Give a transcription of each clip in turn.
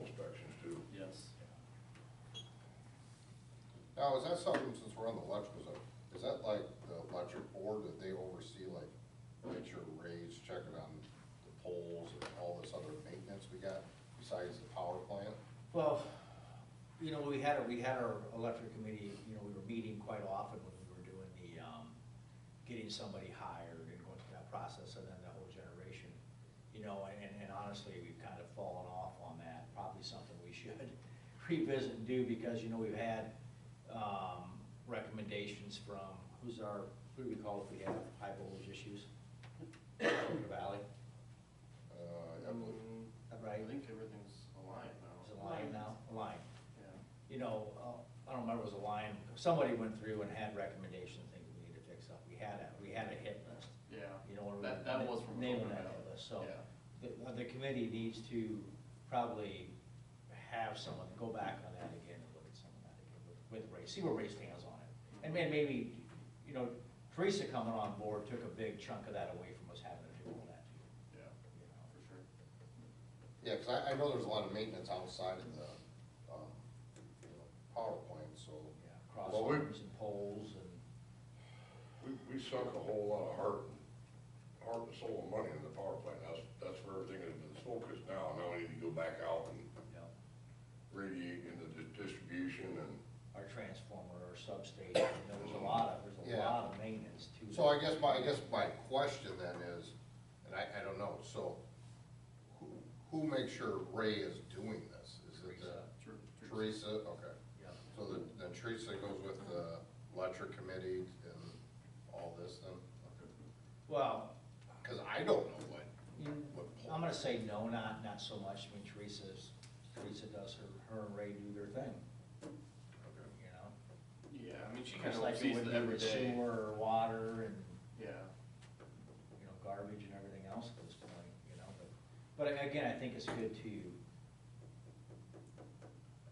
inspections too. Yes. Now, is that something, since we're on the electrical side, is that like the electric board that they oversee, like, make sure Ray's checking on the poles and all this other maintenance we got besides the power plant? Well, you know, we had, we had our electric committee, you know, we were meeting quite often when we were doing the, um, getting somebody hired and going through that process and then the whole generation. You know, and, and honestly, we've kind of fallen off on that, probably something we should revisit and do because, you know, we've had, um, recommendations from, who's our, who do we call if we have high voltage issues? Clear Valley, Uh, I believe- right? I think everything's aligned Is now. it Lion now? Lion. Yeah. you know, uh, I don't remember, it was a line, somebody went through and had recommendations, things we need to fix up. We had a, we had a hit list, Yeah. you know, and we That, that were was from. Naming Coconut that Valley. hit list, so Yeah. the, uh, the committee needs to probably have someone go back on that again and look at some of that again with with Ray, see where Ray stands on it. And man, maybe, you know, Teresa coming on board took a big chunk of that away from us having to do all that too, Yeah, you know. for sure. Yeah, because I, I know there's a lot of maintenance outside of the, um, you know, power plant, so. Yeah, Well, we- Crosswalks and poles and. We, we sunk a whole lot of heart, and- heart and soul and money into the power plant, that's, that's where everything has been focused now, now we need to go back out and Yeah. radiate into the distribution and, our transformer or substation, there was a lot of, there's a Yeah. lot of maintenance to. So I that. guess my, I guess my question then is, and I, I don't know, so who, who makes sure Ray is doing this? Is it the- True. true. Teresa, okay. Yeah. So then Mm-hmm. then Teresa goes with the electric committee and all this then? Well, Because I don't know what, you- what I'm pole. gonna say no, not, not so much, I mean Teresa's, Teresa does her, her and Ray do their thing, Okay. you know? Yeah, I mean, she kind Just of like you oversees would it do every with day. sewer or water and, Yeah. you know, garbage and everything else at this point, you know, but, but again, I think it's good to,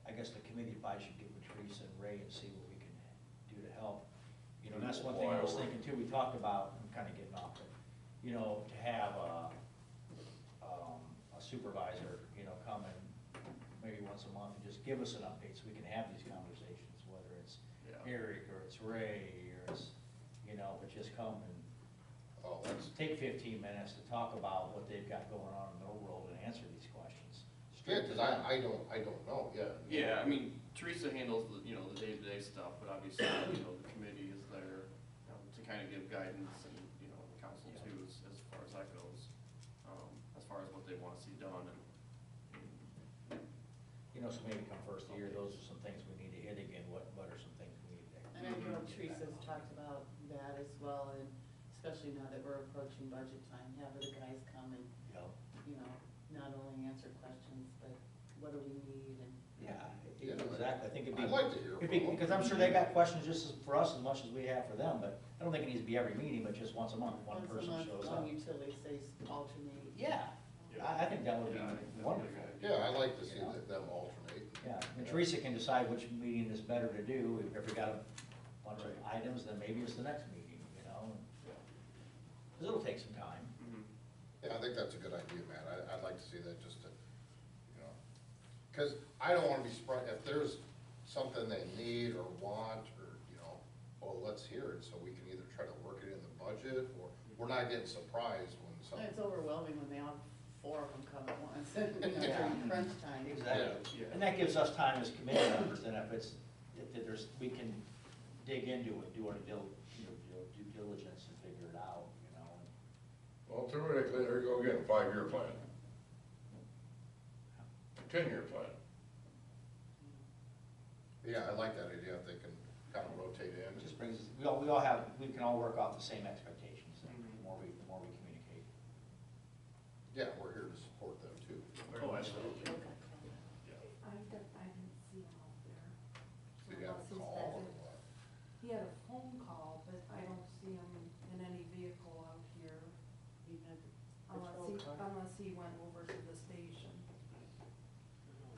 I guess the committee probably should get with Teresa and Ray and see what we can do to help. You know, and that's one thing I was thinking too, we talked about, I'm kinda getting off it, you know, to have a, um, a supervisor, you know, come and maybe once a month and just give us an update so we can have these conversations, whether it's Yeah. Eric or it's Ray or it's, you know, but just come and Oh, that's, take fifteen minutes to talk about what they've got going on in their world and answer these questions. yeah, because I, I don't, I don't know, yeah. Yeah, I mean, Teresa handles the, you know, the day-to-day stuff, but obviously, you know, the committee is there you know, to kind of give guidance and, you know, the council Yeah. too, as, as far as that goes. Um, as far as what they want to see done and, and You know, so maybe come first of the year, those are some things we need to hit again, what, what are some things we need to? And I know get back Teresa's on? talked about that as well, and especially now that we're approaching budget time, have the guys come and, Yeah. you know, not only answer questions, but what do we need and. Yeah, Yeah. exactly, I think it'd be. I'd like to hear it'd be- from 'em. Because I'm sure they got questions just as, for us as much as we have for them, but I don't think it needs to be every meeting, but just once a month, one Once a person month, shows on up. Utilities, they alternate. Yeah, I, I think that would be Yeah, I think that'd be a wonderful. good idea. Yeah, I like to see that them alternate. Yeah, and Teresa can decide which meeting is better to do, if we got a bunch of items, then maybe it's the next meeting, you know? Because it'll take some time. Mhm. Mm-hmm. Yeah, I think that's a good idea, Matt. I, I'd like to see that just to, you know, because I don't want to be surprised, if there's something they need or want, or, you know, well, let's hear it, so we can either try to work it in the budget, or we're not getting surprised when It's something. overwhelming when they all, four of them come at once, you know, Yeah. during crunch time. Exactly. Yeah. And that gives us time as committee members, then if it's, if there's, we can dig into it, do our dil, you know, due diligence and figure it out, you know? Well, theoretically, there you go again, five-year plan, ten-year plan. Yeah, I like that idea, if they can kind of rotate in. It just brings, us- we all, we all have, we can all work off the same expectations, the Mhm. more we, the more we communicate. Yeah, we're here to support them too. Oh, absolutely. Yeah. I don't, I didn't see him out there. So you have a call or what? He had a phone call, but I don't see him in any vehicle out here Even at the unless patrol he, car. unless he went over to the station.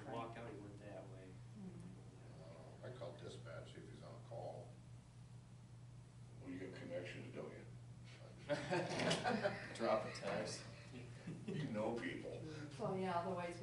Walk out, he went that way. Mm. I don't know. I call dispatch, see if he's on a call. Well, you got connections, don't you? Drop a text. You know people. So, yeah, otherwise